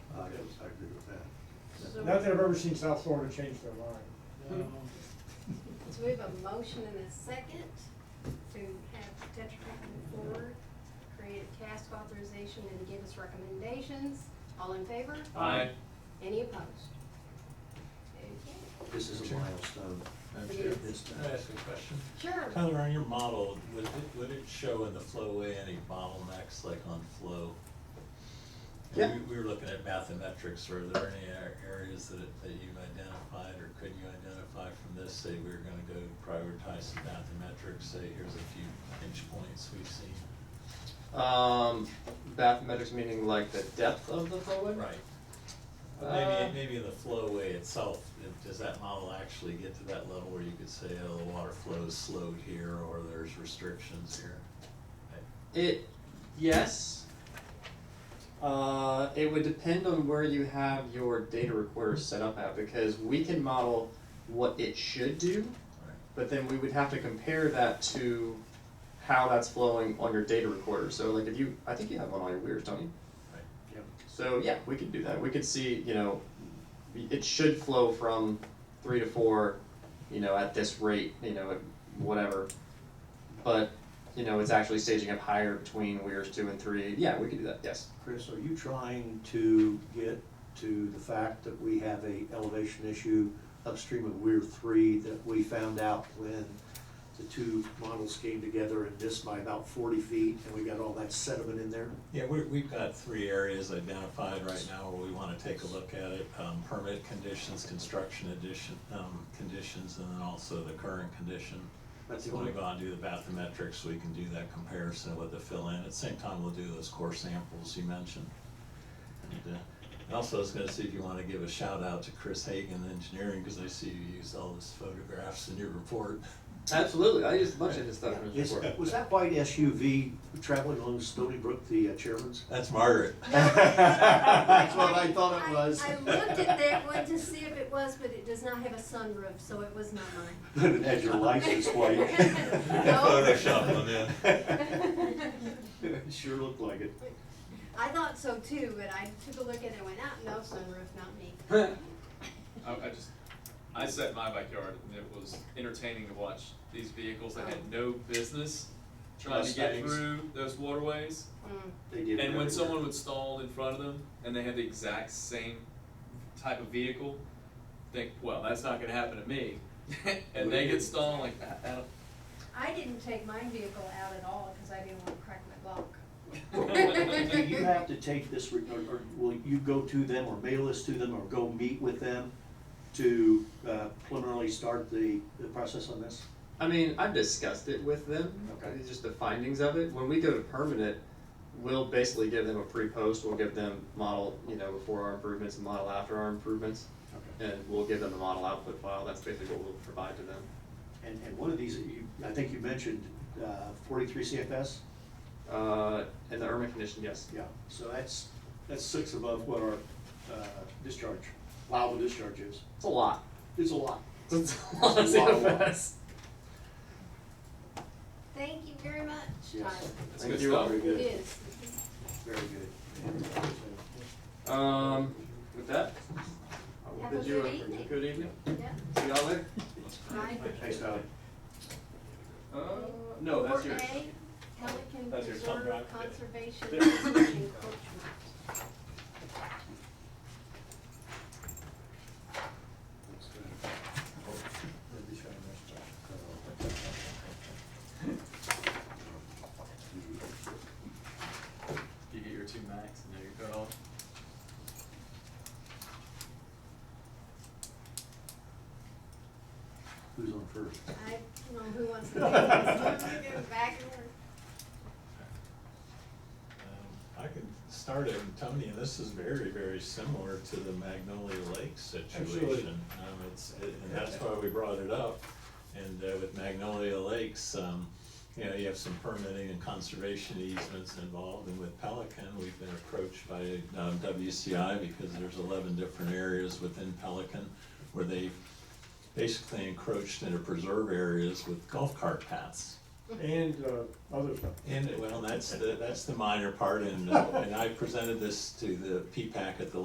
So- Not that I've ever seen South Florida change their mind. So we have a motion and a second to have Tetra Tech come forward, create a task authorization and give us recommendations. All in favor? Aye. Any opposed? Okay. This is a milestone. Madam Chair. This time. Can I ask a question? Sure. Tyler, on your model, would it, would it show in the flowway any bottlenecks like on flow? And Yeah. We, we were looking at mathematics, were there any ar- areas that, it- that you've identified or could you identify from this? Say we we're gonna go prioritize some mathematics, say here's a few pinch points we've seen. Um, bathymetrics meaning like the depth of the fluid? Right. But maybe, Uh, maybe in the flowway itself, if- does that model actually get to that level where you could say, oh, the water flow's slowed here or there's restrictions here? It, yes. Uh, it would depend on where you have your data recorder set up at because we can model what it should do, Right. but then we would have to compare that to how that's flowing on your data recorder. So like if you, I think you have one on your weirs, don't you? Right. Yep. So yeah, we could do that. We could see, you know, it should flow from three to four, you know, at this rate, you know, at whatever. But, you know, it's actually staging up higher between weirs two and three. Yeah, we could do that, yes. Chris, are you trying to get to the fact that we have a elevation issue upstream of Weir Three that we found out when the two models came together and missed by about forty feet and we got all that sediment in there? Yeah, we, we've got three areas identified right now where we wanna take a look at it, um, permit conditions, construction addition, um, conditions, and then also the current condition. That's the When we only, go and do the bathymetrics, we can do that comparison with the fill-in, at the same time, we'll do those core samples you mentioned. And, uh, and also, I was gonna see if you wanna give a shout out to Chris Hagan Engineering, cause I see you used all his photographs in your report. Absolutely. I used a bunch of his stuff in Is- was that white SUV traveling along Stony Brook the uh, chairman's? That's Margaret. That's what I thought I- it was. I looked at that one to see if it was, but it does not have a sunroof, so it was not mine. It had your license plate. Photoshop them in. Sure looked like it. I thought so too, but I took a look at it and went, ah, no sunroof, not me. I, I just, I sat in my backyard and it was entertaining to watch these vehicles that had no business trying to get Mustangs. through those waterways. Mm. They did. And when everywhere. someone would stall in front of them and they had the exact same type of vehicle, think, well, that's not gonna happen to me. And they get stalled like, I, I don't, I didn't take my vehicle out at all because I didn't want to crack my block. Do you have to take this, re- or, or will you go to them or mail this to them or go meet with them to uh, preliminarily start the, the process on this? I mean, I've discussed it with them, Okay. uh, just the findings of it. When we go to permanent, we'll basically give them a pre-post, we'll give them model, you know, before our improvements and model after our improvements. And we'll give them the model output file, that's basically what we'll provide to them. And, and one of these, that you, I think you mentioned uh, forty-three CFS? Uh, in the Irma condition, yes. Yeah, so that's, that's six above what our uh, discharge, allowable discharge is. It's a lot. It's a lot. It's a lot of It's a lot, a lot. CFS. Thank you very much. Yes. Tyler. that's Thank good you. stuff. Very It good, is. very good. Um, with that, I will Have a bid you good a evening. good evening. Yeah. See y'all later. Bye. Thanks, Tyler. Uh, no, that's yours. Four A, Pelican That's Preserve yours. Something like Conservation Encroachment. You get your two max and there you go. Who's on first? I don't know who wants to do this. I'm gonna go back and forth. Um, I could start it, and Tony, and this is very, very similar to the Magnolia Lake Absolutely. situation. Um, it's, it- and that's why we brought it up. And uh, with Magnolia Lakes, um, you know, you have some permitting and conservation easements involved. And with Pelican, we've been approached by um, WCI because there's eleven different areas within Pelican where they basically encroached into preserve areas with golf cart paths. And, uh, other stuff. And, well, that's the, that's the minor part, and, uh, and I presented this to the P-PAC at the